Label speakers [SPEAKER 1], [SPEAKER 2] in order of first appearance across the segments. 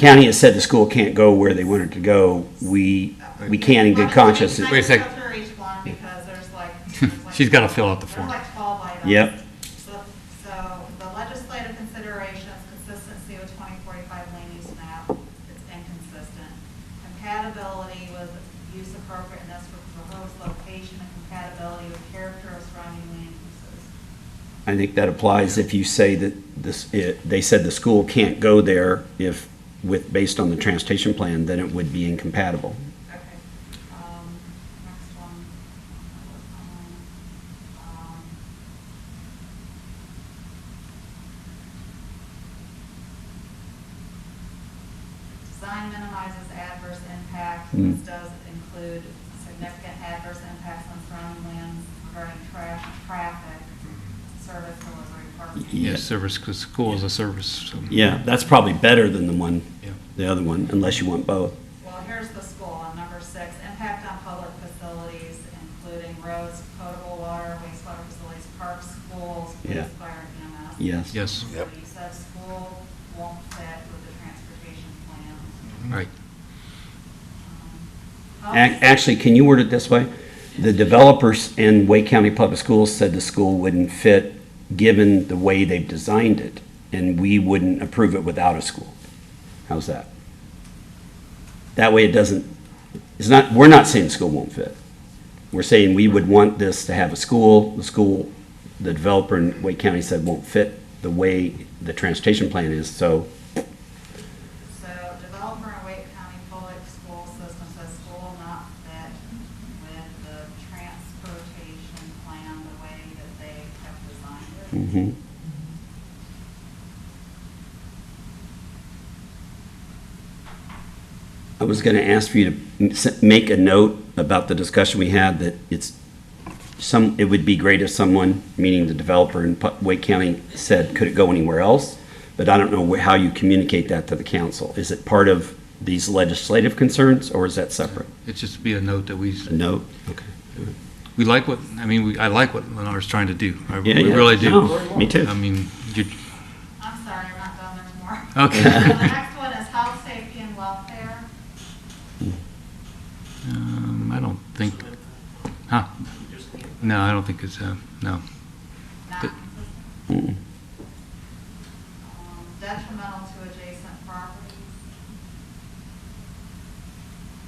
[SPEAKER 1] county has said the school can't go where they want it to go, we, we can in good conscience.
[SPEAKER 2] I
[SPEAKER 3] Wait a
[SPEAKER 2] just
[SPEAKER 3] sec.
[SPEAKER 2] have to reach one because there's like. there's like-
[SPEAKER 3] She's gotta fill out the
[SPEAKER 2] there's
[SPEAKER 3] form.
[SPEAKER 2] like 12 items.
[SPEAKER 1] Yep.
[SPEAKER 2] So- So the legislative considerations, consistency with 2045 land use map, it's inconsistent. Compatibility with use appropriateness for proposed location and compatibility with character of surrounding land uses.
[SPEAKER 1] I think that applies if you say that this, it, they said the school can't go there if, with, based on the transportation plan, then it would be incompatible.
[SPEAKER 2] Okay. Um, Next one. Um, Design minimizes adverse impact,
[SPEAKER 1] Mm.
[SPEAKER 2] this does include significant adverse impacts on surrounding lands regarding trash, traffic, service delivery, parking.
[SPEAKER 3] Yes, service, because school is a service. so-
[SPEAKER 1] Yeah, that's probably better than the one,
[SPEAKER 3] Yeah.
[SPEAKER 1] the other one, unless you want both.
[SPEAKER 2] Well, here's the school on number six, impact on public facilities, including roads, potable water, wastewater facilities, parks, schools,
[SPEAKER 1] Yeah.
[SPEAKER 2] police, fire, EMS.
[SPEAKER 1] Yes.
[SPEAKER 3] Yes,
[SPEAKER 2] So You said school won't fit with the transportation plan.
[SPEAKER 3] right.
[SPEAKER 2] Um,
[SPEAKER 1] Ac- Actually, can you word it this way? The developers in Wake County Public Schools said the school wouldn't fit, given the way they've designed it, and we wouldn't approve it without a school. How's that? That way it doesn't, it's not, we're not saying the school won't fit. We're saying we would want this to have a school, the school, the developer in Wake County said won't fit the way the transportation plan is, so
[SPEAKER 2] So developer in Wake County Public School System says school not fit with the transportation plan the way that they have designed it.
[SPEAKER 1] mhm. I was going to ask for you to m- s- make a note about the discussion we had that it's some, it would be great if someone, meaning the developer in Pu- Wake County, said, could it go anywhere else? But I don't know wh- how you communicate that to the council. Is it part of these legislative concerns or is that separate?
[SPEAKER 3] It's just be a note that we,
[SPEAKER 1] A note? Okay.
[SPEAKER 3] we like what, I mean, we I like what Lennar's trying to do. I-
[SPEAKER 1] Yeah,
[SPEAKER 3] We
[SPEAKER 1] yeah.
[SPEAKER 3] really do.
[SPEAKER 1] No, Me too.
[SPEAKER 3] I mean, you,
[SPEAKER 2] I'm sorry, I'm not done, there's more.
[SPEAKER 3] Okay.
[SPEAKER 2] So The next one is health, safety, and welfare.
[SPEAKER 3] um, I don't think, huh? No, I don't think it's, uh, no.
[SPEAKER 2] Not
[SPEAKER 3] Good.
[SPEAKER 2] consistent.
[SPEAKER 1] Mm.
[SPEAKER 2] Um, Detrimental to adjacent properties.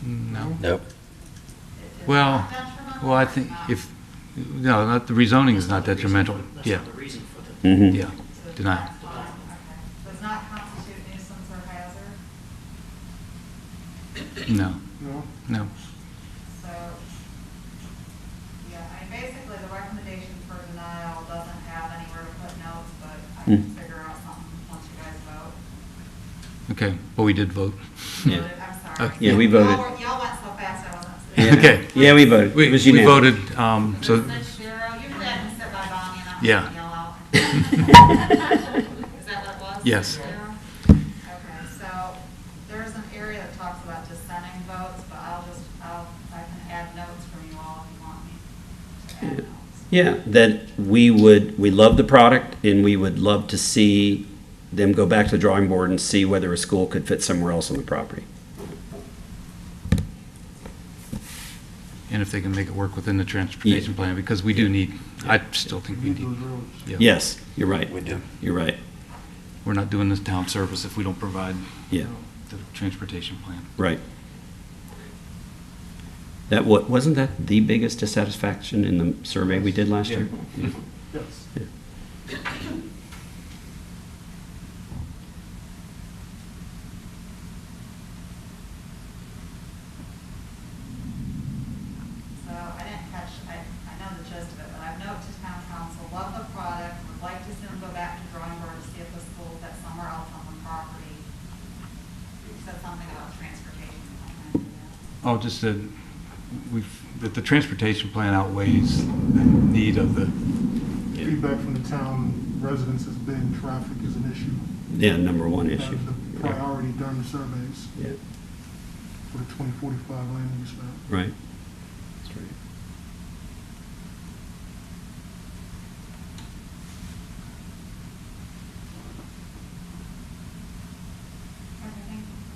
[SPEAKER 3] No.
[SPEAKER 4] Nope.
[SPEAKER 2] It is
[SPEAKER 3] Well,
[SPEAKER 2] not detrimental
[SPEAKER 3] well, I
[SPEAKER 2] or
[SPEAKER 3] think
[SPEAKER 2] not?
[SPEAKER 3] if, no, not, the rezoning is not
[SPEAKER 5] That's the reason
[SPEAKER 3] detrimental.
[SPEAKER 5] for- That's
[SPEAKER 3] Yeah,
[SPEAKER 1] Mm-hmm.
[SPEAKER 5] not the reason for the
[SPEAKER 1] Mhm.
[SPEAKER 3] yeah.
[SPEAKER 2] So it's
[SPEAKER 3] Denial.
[SPEAKER 2] not fine, okay. Does not constitute nuisance or hazard,
[SPEAKER 3] No. No.
[SPEAKER 2] so, yeah, I mean, basically, the recommendation for denial doesn't have anywhere to put notes, but I can
[SPEAKER 1] Hmm.
[SPEAKER 2] figure out something once you guys vote.
[SPEAKER 3] Okay, but we did vote.
[SPEAKER 1] Yeah.
[SPEAKER 2] I'm sorry.
[SPEAKER 3] Okay.
[SPEAKER 1] Yeah, we
[SPEAKER 2] Y'all
[SPEAKER 1] voted.
[SPEAKER 2] were- Y'all went so fast, I wasn't.
[SPEAKER 1] Yeah.
[SPEAKER 3] Okay.
[SPEAKER 1] Yeah, we voted.
[SPEAKER 3] We
[SPEAKER 1] It was
[SPEAKER 3] we
[SPEAKER 1] unanimous.
[SPEAKER 3] voted, um, so,
[SPEAKER 2] Six zero. Usually I can sit by Bonnie and I'm
[SPEAKER 3] Yeah.
[SPEAKER 2] yell out. Is that what it was?
[SPEAKER 3] Yes.
[SPEAKER 2] Six zero? Okay, so there's an area that talks about dissenting votes, but I'll just, I'll, I can add notes from you all if you want me to add
[SPEAKER 1] Yeah.
[SPEAKER 2] notes.
[SPEAKER 1] Yeah, that we would, we love the product and we would love to see them go back to the drawing board and see whether a school could fit somewhere else on the property.
[SPEAKER 3] and if they can make it work within the transportation plan, because we do need, I still think we need, yeah.
[SPEAKER 1] Yes, you're right.
[SPEAKER 4] We do.
[SPEAKER 1] You're right.
[SPEAKER 3] We're not doing this town service if we don't provide
[SPEAKER 1] Yeah,
[SPEAKER 3] the transportation plan.
[SPEAKER 1] right. That wa, wasn't that the biggest dissatisfaction in the survey we did last year?
[SPEAKER 5] Yes.
[SPEAKER 2] So I didn't catch, I, I know the gist of it, but I've noted to town council, love the product, would like to see them go back to drawing board to see if the school that's somewhere else on the property. You said something about transportation. I can't remember.
[SPEAKER 3] Oh, just that we've, that the transportation plan outweighs the need of the,
[SPEAKER 6] Feedback from the town residents has been traffic is an issue.
[SPEAKER 1] Yeah, number one issue.
[SPEAKER 6] The priority during the surveys
[SPEAKER 1] Yeah,
[SPEAKER 6] for the 2045 land use map.
[SPEAKER 1] right. That's right.